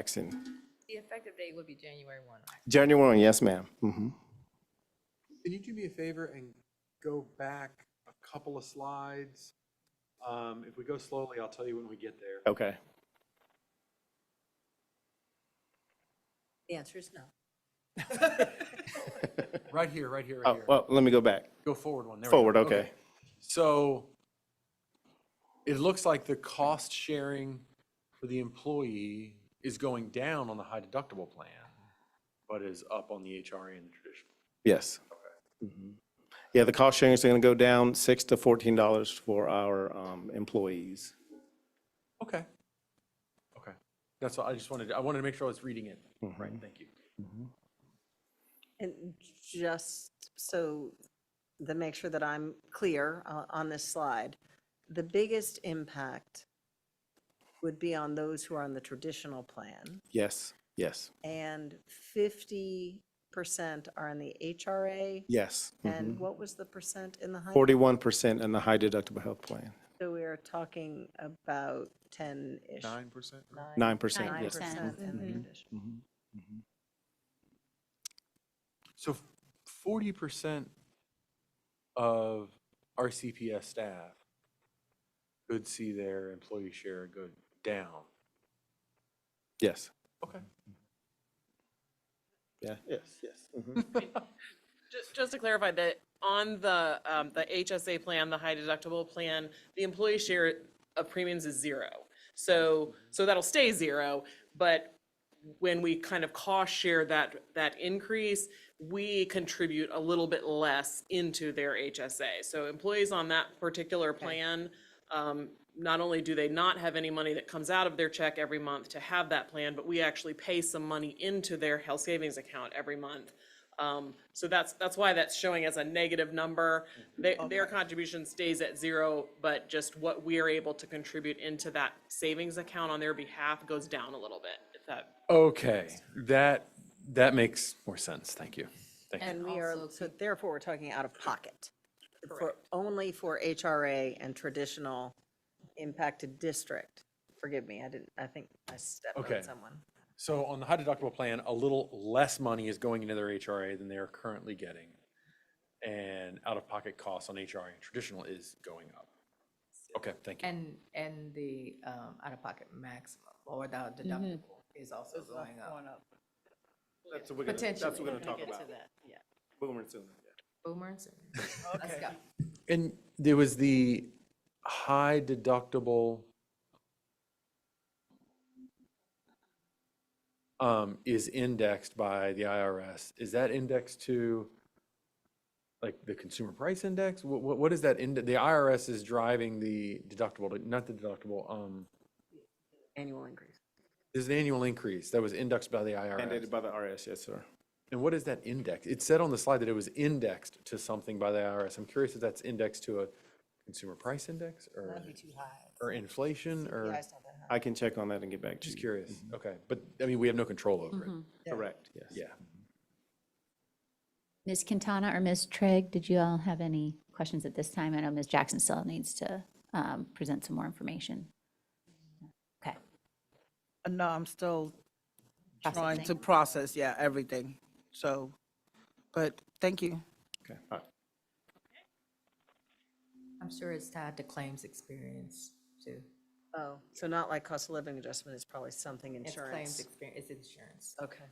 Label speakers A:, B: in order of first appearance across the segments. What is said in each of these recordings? A: Jackson.
B: The effective date would be January 1.
A: January one, yes, ma'am. hmm
C: Can you do me a favor and go back a couple of slides? Um, If we go slowly, I'll tell you when we get there.
A: Okay.
B: The answer is no.
C: Right here, right here, right
A: Oh,
C: here.
A: well, let me go back.
C: Go forward one. there we go.
A: Forward, okay.
C: So it looks like the cost sharing for the employee is going down on the high deductible plan, but is up on the HRA and the traditional.
A: Yes. Mhm. Yeah, the cost sharing is going to go down six to fourteen dollars for our um, employees.
C: Okay. Okay. That's all, I just wanted, to- I wanted to make sure I was reading it.
A: Mm-hmm.
C: Right, thank you.
D: And just so, to make sure that I'm clear uh, on this slide, the biggest impact would be on those who are on the traditional plan,
A: Yes, yes,
D: and 50% are on the HRA,
A: yes.
D: and what was the percent in the high?
A: Forty-one percent in the high deductible health plan,
D: So we are talking about 10-ish.
C: Nine percent?
A: nine percent,
E: Nine
A: yes.
E: percent.
D: 9% in the traditional.
C: So forty percent of our CPS staff could see their employee share go down.
A: Yes,
C: Okay.
A: yeah, yes, yes. mhm.
F: Just, just to clarify that on the, um, the HSA plan, the high deductible plan, the employee share of premiums is zero. So, so that'll stay zero, but when we kind of cost share that, that increase, we contribute a little bit less into their HSA. So employees on that particular plan, um, not only do they not have any money that comes out of their check every month to have that plan, but we actually pay some money into their health savings account every month. Um, so that's, that's why that's showing as a negative number. Their, their contribution stays at zero, but just what we are able to contribute into that savings account on their behalf goes down a little bit, if that
C: Okay, that, that makes more sense. Thank you. Thank you.
D: And we are, so therefore, we're talking out of pocket. for Only for HRA and traditional impacted district. Forgive me, I didn't, I think I stepped
C: Okay.
D: on someone.
C: So on the high deductible plan, a little less money is going into their HRA than they are currently getting. And out-of-pocket costs on HRA and traditional is going up. Okay, thank you.
E: And, and the um, out-of-pocket maximum or the deductible is also going up.
A: That's what we're gonna, that's what we're gonna talk about. Boomer soon.
E: Boomers. Let's go.
C: And there was the high deductible. Um, is indexed by the IRS. Is that indexed to? Like the consumer price index? What, what, what is that? ind- The IRS is driving the deductible, not the deductible, um,
D: Annual increase.
C: there's an annual increase that was indexed by the IRS.
A: Mandated by the RS, yes, sir.
C: And what is that index? It said on the slide that it was indexed to something by the IRS. I'm curious if that's indexed to a consumer price index or, or inflation or,
A: I can check on that and get back to
C: just
A: you.
C: curious. Okay, but I mean, we have no control over it.
A: Correct, yes.
C: Yeah.
G: Ms. Quintana or Ms. Trigg, did you all have any questions at this time? I know Ms. Jackson still needs to um, present some more information. Okay.
H: Uh, No, I'm still trying to
G: Processing.
H: process, yeah, everything. So, but thank you.
A: Okay. all right.
E: I'm sure it's tied to claims experience too.
D: Oh, so not like cost of living adjustment, it's probably something
E: It's claims
D: insurance.
E: experience, it's insurance.
D: Okay.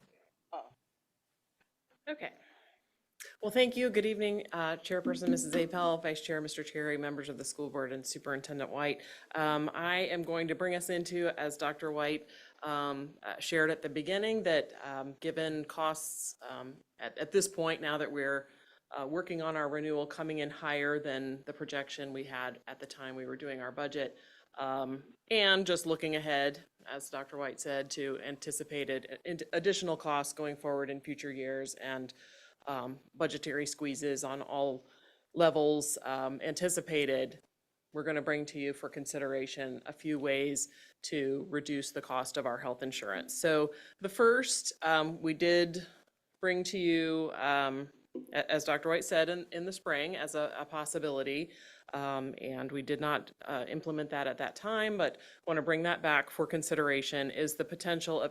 F: Okay. Well, thank you. Good evening, uh, Chairperson Mrs. Apel, Vice Chair Mr. Cherry, members of the school board, and Superintendent White. Um, I am going to bring us into, as Dr. White um, uh, shared at the beginning, that um, given costs um, at at this point, now that we're uh, working on our renewal coming in higher than the projection we had at the time we were doing our budget, um, And just looking ahead, as Dr. White said, to anticipated ad- additional costs going forward in future years and um, budgetary squeezes on all levels um, anticipated, we're going to bring to you for consideration a few ways to reduce the cost of our health insurance. So the first, um, we did bring to you, um, a- as Dr. White said, in, in the spring as a, a possibility. Um, and we did not, uh, implement that at that time, but want to bring that back for consideration is the potential of